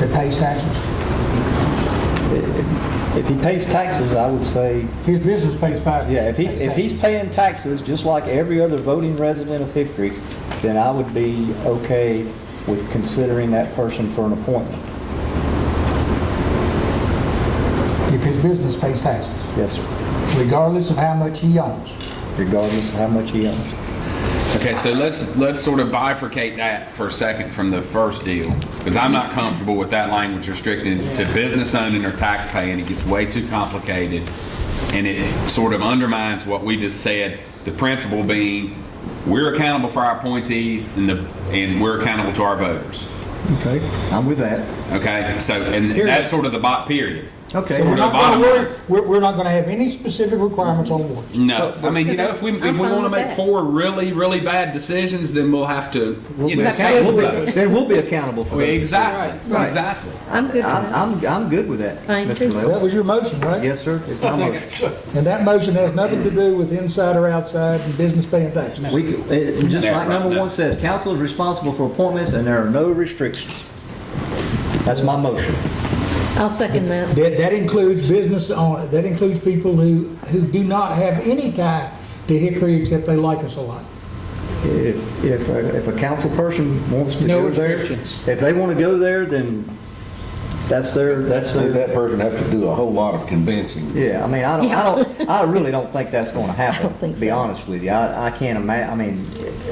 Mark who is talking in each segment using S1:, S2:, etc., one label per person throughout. S1: that pays taxes?
S2: If if he pays taxes, I would say,
S1: His business pays five.
S2: yeah, if he, if he's paying taxes, just like every other voting resident of Hickory, then I would be okay with considering that person for an appointment.
S1: If his business pays taxes,
S2: Yes, sir.
S1: regardless of how much he owns.
S2: Regardless of how much he owns.
S3: Okay, so let's, let's sort of bifurcate that for a second from the first deal, because I'm not comfortable with that language restricted to business owning or tax paying. It gets way too complicated, and it sort of undermines what we just said, the principle being, we're accountable for our appointees, and the, and we're accountable to our voters.
S2: Okay. I'm with that.
S3: Okay, so, and
S2: Period.
S3: that's sort of the bot, period.
S2: Okay.
S3: Sort
S1: We're
S3: of the
S1: not gonna
S3: bottom
S1: worry-
S3: line.
S1: We're, we're not gonna have any specific requirements on warrants.
S3: No, I mean, you know, if we, if we
S4: I'm fine
S3: want to
S4: with
S3: make
S4: that.
S3: four really, really bad decisions, then we'll have to, you know, take those.
S2: Then we'll be accountable for that.
S3: Exactly,
S2: Right.
S3: exactly.
S4: I'm good with
S2: I'm,
S4: that.
S2: I'm, I'm good with that,
S4: I'm too.
S2: Mr. Lel.
S1: That was your motion, right?
S2: Yes, sir. It's my motion.
S1: And that motion has nothing to do with inside or outside and business paying taxes.
S2: We, could- it- just
S3: Yeah,
S2: like number
S3: right,
S2: one
S3: no.
S2: says, council is responsible for appointments and there are no restrictions. That's my motion.
S4: I'll second that.
S1: That, that includes business on, that includes people who, who do not have any tie to Hickory except they like us a lot.
S2: If, if, a- if a council person wants to
S1: No
S2: go there,
S1: restrictions.
S2: if they want to go there, then that's their, that's
S5: Say
S2: their,
S5: that person have to do a whole lot of convincing.
S2: yeah, I mean, I don't, I
S4: Yeah.
S2: don't, I really don't think that's going to happen.
S4: don't think
S2: To be
S4: so.
S2: honest with you, I, I can't imagine. I mean,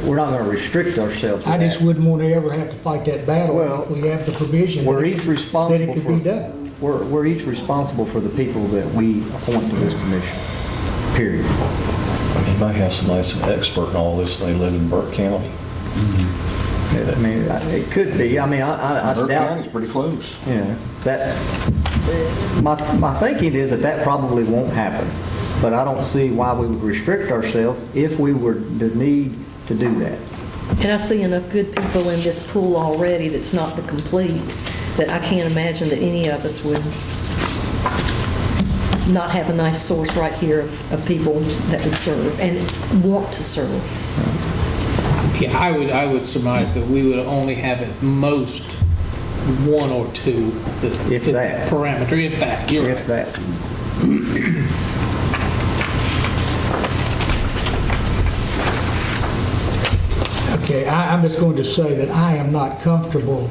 S2: we're not going to restrict ourselves to
S1: I just
S2: that.
S1: wouldn't want to ever have to fight that battle
S2: Well,
S1: if we have the provision.
S2: We're
S1: that
S2: each
S1: That it
S2: responsible
S1: could be
S2: for,
S1: done.
S2: we're, we're each responsible for the people that we appoint to this commission, period.
S6: You might have somebody that's an expert in all this, and they live in Burke County.
S2: I mean, it could be, I mean, I, I- I
S5: Burke
S2: doubt,
S5: County's pretty close.
S2: you know, that, my, my thinking is that that probably won't happen, but I don't see why we would restrict ourselves if we were to need to do that.
S4: And I see enough good people in this pool already that's not the complete, that I can't imagine that any of us would not have a nice source right here of, of people that would serve and want to serve.
S7: Yeah, I would, I would surmise that we would only have at most one or two. that-
S2: If that.
S7: Parameter, if that, you're
S2: If
S7: right.
S2: that,
S1: Okay, I, I'm just going to say that I am not comfortable,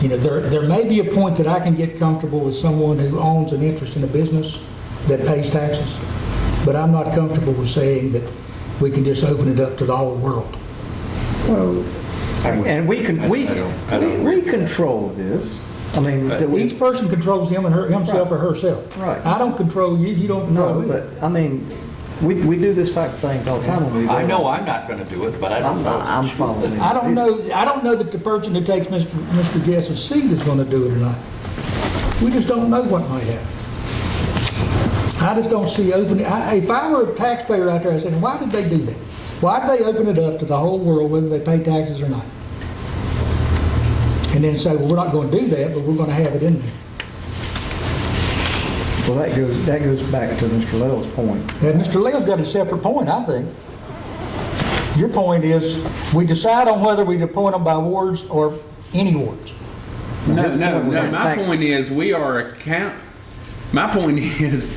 S1: you know, there, there may be a point that I can get comfortable with someone who owns an interest in a business that pays taxes, but I'm not comfortable with saying that we can just open it up to the whole world.
S2: and we can, we,
S5: I don't- I don't
S2: we control this, I mean, that we,
S1: Each person controls him and her, himself or herself.
S2: Right.
S1: I don't control you, you don't control
S2: no,
S1: me.
S2: but, I mean, we, we do this type of thing all the time when we.
S8: I know I'm not going to do it, but I don't
S2: I'm,
S8: know.
S2: I'm following. you.
S1: I don't know, I don't know that the person that takes Mr. Mr. Guess's seat is gonna do it or not. We just don't know what might happen. I just don't see opening, I, if I were a taxpayer out there, I'd say, why did they do that? Why'd they open it up to the whole world, whether they pay taxes or not? And then say, well, we're not gonna do that, but we're gonna have it in there.
S2: Well, that goes, that goes back to Mr. Lell's point.
S1: And Mr. Leo's got a separate point, I think. Your point is, we decide on whether we appoint them by wards or any wards.
S3: No, no,
S2: was
S3: no.
S2: in
S3: My
S2: Texas.
S3: point is, we are account, my point is,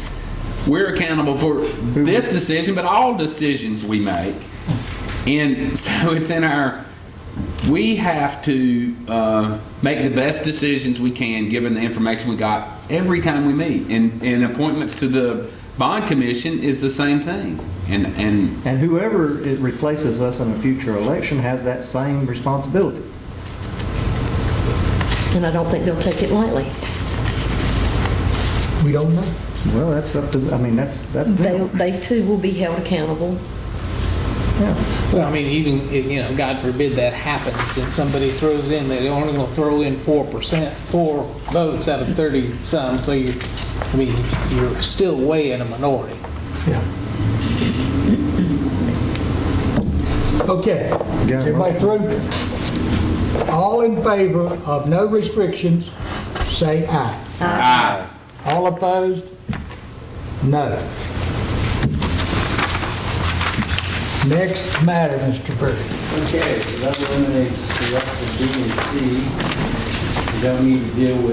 S3: we're accountable for this decision, but all decisions we make. And so it's in our, we have to uh, make the best decisions we can, given the information we got every time we meet. And, and appointments to the bond commission is the same thing. And, and
S2: And whoever it replaces us in a future election has that same responsibility.
S4: And I don't think they'll take it lightly.
S1: We don't know.
S2: Well, that's up to, I mean, that's, that's
S4: They,
S2: them.
S4: they too will be held accountable.
S7: Well, I mean, even, if, you know, God forbid that happens and somebody throws in, they're only going to throw in 4%, four votes out of 30 some, so you, I mean, you're still way in a minority.
S1: Yeah. Okay, is
S2: Yeah.
S1: everybody through? All in favor of no restrictions, say aye.
S3: I,
S1: All opposed? No. Next matter, Mr. Burke.
S9: Okay, so that eliminates the rest of B and C. We don't need to deal with